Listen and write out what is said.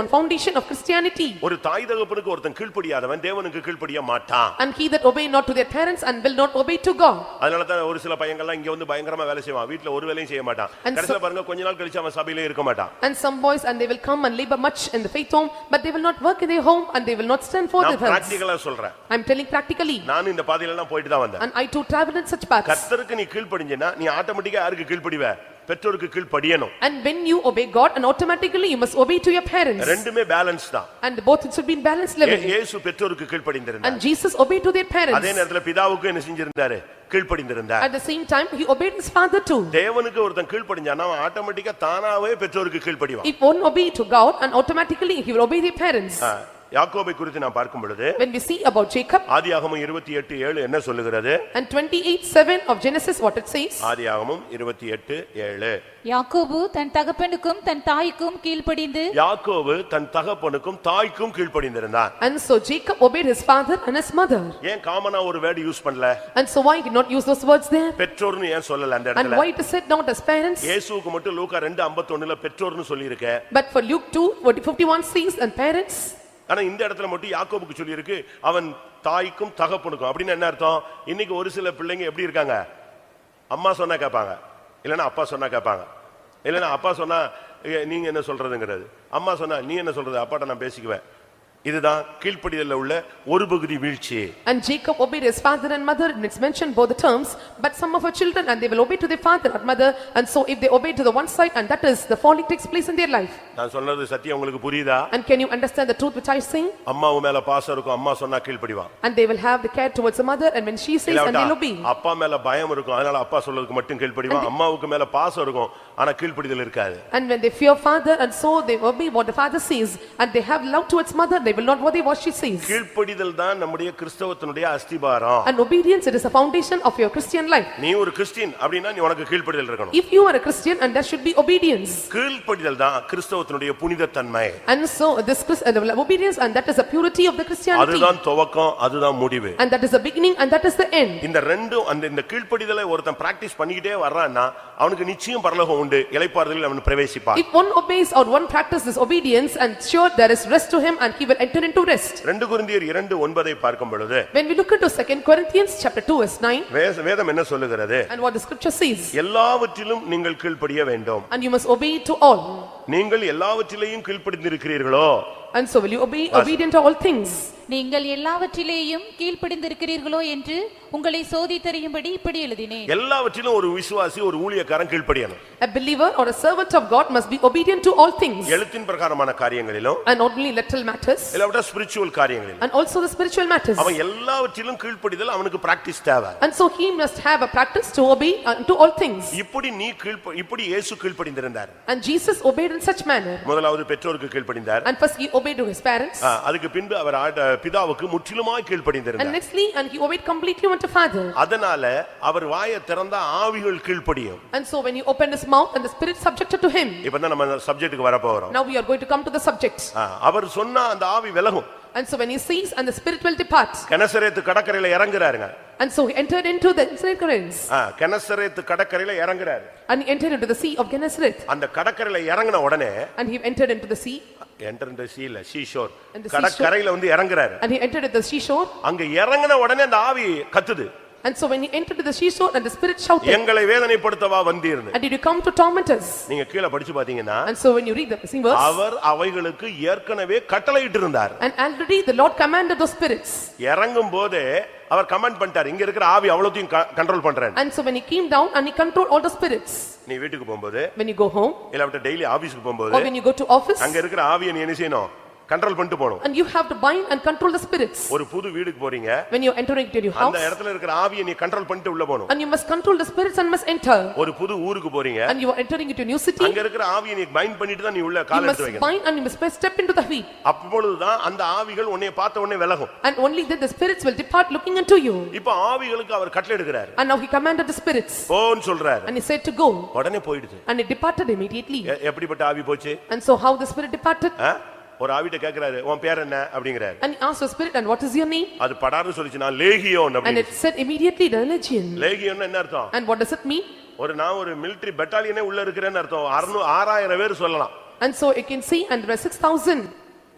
on foundation of Christianity. ஒரு தாய் தகப்பனுக்கு ஒருத்தன் கீழ்ப்படியாதவன் தேவனுக்கு கீழ்ப்படிய மாட்டான் And he that obey not to their parents and will not obey to God. அதனால தான் ஒரு சில பையங்கள்லாம் இங்க வந்து பயங்கரமா வேலை செய்வான் வீட்ல ஒரு வேலையும் செய்ய மாட்டான் And so- கடைசியில பாருங்க கொஞ்ச நாள் கழிச்சு அவன் சபையிலே இருக்க மாட்டான் And some boys and they will come and labor much in the faith home, but they will not work in their home and they will not stand for நான் defense. பிராக்டிகலா சொல்றேன் I'm telling practically நானும் இந்த பாதையில எல்லாம் போயிட்டு தான் வந்தேன் and I too travel in such paths. கர்த்தருக்கு நீ கீழ்ப்படிஞ்சேன்னா நீ ஆட்டோமேட்டிக்கா யாருக்கு கீழ்ப்படிவ பெற்றோருக்கு கீழ்ப்படியணும் And when you obey God and automatically you must obey to your parents. ரெண்டுமே பேலன்ஸ் தான் And both it should be in balanced ஏ- level. இயேசு பெற்றோருக்கு கீழ்ப்படிந்திருந்தார் And Jesus obeyed to their அதே parents. நேரத்துல பிதாவுக்கு என்ன செஞ்சிருந்தாரு கீழ்ப்படிந்திருந்தார் At the same time, he obeyed his father too. தேவனுக்கு ஒருத்தன் கீழ்ப்படிஞ்சான்னா அவன் ஆட்டோமேட்டிக்கா தானாவே பெற்றோருக்கு கீழ்ப்படிவான் If one obey to God and automatically he will obey their parents. ஆ, யாக்கோபை குறித்து நான் பார்க்கும் பொழுது When we see about Jacob ஆதியாகமம் இருபத்தி எட்டு ஏழு என்ன சொல்லுகிறது and twenty-eight seven of Genesis, what it says? ஆதியாகமம் இருபத்தி எட்டு ஏழு யாக்கோபு தன் தகப்பனுக்கும் தன் தாய்க்கும் கீழ்ப்படிந்து யாக்கோபு தன் தகப்பனுக்கும் தாய்க்கும் கீழ்ப்படிந்திருந்தான் And so Jacob obeyed his father and his mother. ஏன் காமனா ஒரு வேர்டு யூஸ் பண்ணல And so why he did not use those words there? பெற்றோர்னு ஏன் சொல்லல அந்த And இடத்துல why it is said not as parents? இயேசுவுக்கு மட்டும் லூக்கா ரெண்டு ஐம்பத்தொன்னுல பெற்றோர்னு சொல்லியிருக்க But for Luke two, what fifty-one says and parents. ஆனா இந்த இடத்துல மட்டும் யாக்கோபுக்கு சொல்லியிருக்கு அவன் தாய்க்கும் தகப்பனுக்கும் அப்படின்னு என்ன அர்த்தம் இன்னைக்கு ஒரு சில பிள்ளைங்க எப்படி இருக்காங்க அம்மா சொன்னா கேட்பாங்க இல்லைன்னா அப்பா சொன்னா கேட்பாங்க இல்லைன்னா அப்பா சொன்னா "ஏ, நீங்க என்ன சொல்றதுங்கிறது அம்மா சொன்னா நீ என்ன சொல்றது அப்பாட்ட நான் பேசிக்குவேன் இதுதான் கீழ்ப்படிதல்ல உள்ள ஒரு பகுதி வீழ்ச்சி And Jacob obeyed his father and mother and it's mentioned both the terms. But some of our children and they will obey to their father and mother. And so if they obey to the one side and that is the falling takes place in their life. நான் சொன்னது சத்தியம் உங்களுக்கு புரியுதா And can you understand the truth which I say? அம்மாவு மேல பாசம் இருக்கும் அம்மா சொன்னா கீழ்ப்படிவான் And they will have the care towards the mother and when she says and இல்லாவிட்டா, they'll obey. அப்பா மேல பயம் இருக்கும் அதனால அப்பா சொல்றதுக்கு மட்டும் கீழ்ப்படிவான் அம்மாவுக்கு மேல பாசம் இருக்கும் ஆனா கீழ்ப்படிதல் இருக்காது And when they fear father and so they obey what the father says and they have love towards mother, they will not worry what she says. கீழ்ப்படிதல் தான் நம்முடைய கிறிஸ்தவத்தினுடைய அஸ்திபாரம் And obedience, it is the foundation of your Christian life. நீ ஒரு Christian அப்படின்னா நீ உனக்கு கீழ்ப்படிதல் இருக்கணும் If you are a Christian and there should be obedience. கீழ்ப்படிதல் தான் கிறிஸ்தவத்தினுடைய புனிதத்தன்மை And so this Chris- uh, the obedience and that is the purity of the Christianity. அதுதான் துவக்கம் அதுதான் முடிவு And that is the beginning and that is the end. இந்த ரெண்டும் அந்த இந்த கீழ்ப்படிதலை ஒருத்தன் பிராக்டிஸ் பண்ணிக்கிட்டே வர்றான்னா அவனுக்கு நிச்சயம் பரலோகம் உண்டு இளைப்பாறுதலில் அவன் பிரவேசிப்பான் If one obeys or one practices this obedience and sure there is rest to him and he will enter into rest. ரெண்டு குருந்தியர் இரண்டு ஒன்பதை பார்க்கும் பொழுது When we look into second Corinthians chapter two verse nine வே- வேதம் என்ன சொல்லுகிறது and what the scripture says. எல்லாவற்றிலும் நீங்கள் கீழ்ப்படிய வேண்டும் And you must obey to all. நீங்கள் எல்லாவற்றிலேயும் கீழ்ப்படிந்திருக்கிறீர்களோ And so will you obey obedient to all things? நீங்கள் எல்லாவற்றிலேயும் கீழ்ப்படிந்திருக்கிறீர்களோ என்று உங்களை சோதித்தறியும்படி இப்படி எழுதினேன் எல்லாவற்றிலும் ஒரு விசுவாசி ஒரு ஊழியக்காரன் கீழ்ப்படியணும் A believer or a servant of God must be obedient to all things எழுத்தின் பிரகாரமான காரியங்களிலும் and not only literal matters இல்லாவிட்டா ஸ்பிரிச்சுவல் காரியங்களிலும் and also the spiritual matters. அவன் எல்லாவற்றிலும் கீழ்ப்படிதல் அவனுக்கு பிராக்டிஸ் தேவை And so he must have a practice to obey unto all things. இப்படி நீ கீழ்ப்ப இப்படி இயேசு கீழ்ப்படிந்திருந்தார் And Jesus obeyed in such manner. முதலாவது பெற்றோருக்கு கீழ்ப்படிந்தார் And first he obeyed to his parents ஆ, அதுக்கு பின்பு அவர் ஆட- பிதாவுக்கு முற்றிலுமாய் and கீழ்ப்படிந்திருந்தார் nextly and he obeyed completely unto father. அதனால அவர் வாயை திறந்தா ஆவிகள் கீழ்ப்படியும் And so when he opened his mouth and the spirit subjected to him. இப்பதான் நம்ம சப்ஜெக்ட்டுக்கு வரப்போகிறோம் Now we are going to come to the subject. ஆ, அவர் சொன்னா அந்த ஆவி விலகும் And so when he sees and the spirit will depart. கெனசரேத்து கடற்கரையில இறங்குறாருங்க And so he entered into the Gennesareth ஆ, கெனசரேத்து கடற்கரையில இறங்குறாரு and he entered into the sea of Gennesareth. அந்த கடற்கரையில இறங்கின உடனே And he entered into the sea, enter சீல seashore And the கடற்கரையில வந்து இறங்குறாரு and he entered at the seashore, அங்க இறங்கின உடனே அந்த ஆவி கத்துது and so when he entered to the seashore, and the spirit shouted, எங்களை வேதனைப்படுத்தவா வந்தீர்னு "And did you come to torment us?" நீங்க கீழே படிச்சு பாத்தீங்கன்னா And so when you read the same verse, அவர் அவைகளுக்கு ஏற்கனவே கட்டளையிட்டு இருந்தார் and already the Lord commanded those spirits, இறங்கும் போதே அவர் கமெண்ட் பண்ணிட்டார் இங்க இருக்கிற ஆவி அவ்வளோத்தையும் கண்ட்ரோல் பண்றேன் and so when he came down and he controlled all the spirits, நீ வீட்டுக்கு போகும்போது when you go home இல்லாவிட்ட டெய்லி ஆபீஸ்க்கு போகும்போது or when you go to office, அங்க இருக்கிற ஆவியை நீ என்ன செய்யணும் கண்ட்ரோல் பண்ணிட்டு போகணும் and you have to bind and control the spirits ஒரு புது வீடுக்கு போறீங்க when you're entering into your அந்த house, இடத்துல இருக்கிற ஆவியை நீ கண்ட்ரோல் பண்ணிட்டு உள்ள போகணும் and you must control the spirits and must enter, ஒரு புது ஊருக்கு போறீங்க and you are entering into a new அங்க city, இருக்கிற ஆவியை நீ பைண்ட் பண்ணிட்டு தான் நீ உள்ள you கால் must எடுத்து வைக்கணும் bind and you must first step into the heat, அப்பொழுதுதான் அந்த ஆவிகள் உன்னை பார்த்த உடனே விலகும் and only then the spirits will depart looking into you. இப்ப ஆவிகளுக்கு அவர் கட்டளை எடுக்கிறாரு And now he commanded the spirits. போன்னு சொல்றாரு And he said to go, உடனே போயிடுது and it departed immediately. எ- எப்படிப்பட்ட ஆவி போச்சு And so how the spirit departed? ஆ? ஒரு ஆவிட்ட கேக்குறாரு உன் பேர் என்ன அப்படிங்கிறாரு And he asked the spirit, and what is your name? அது படாருன்னு சொல்லிச்சு நான் லேகியோன் And அப்படின்னு it said immediately, "The legion. லேகியோன்னு என்ன அர்த்தம் And what does it mean? ஒரு நான் ஒரு மிலிட்டரி பெட்டாலியனே உள்ள இருக்கிறேன்னு அர்த்தம் அறுநூ ஆறாயிரம் பேர் சொல்லலாம் And so you can see, and there were six thousand.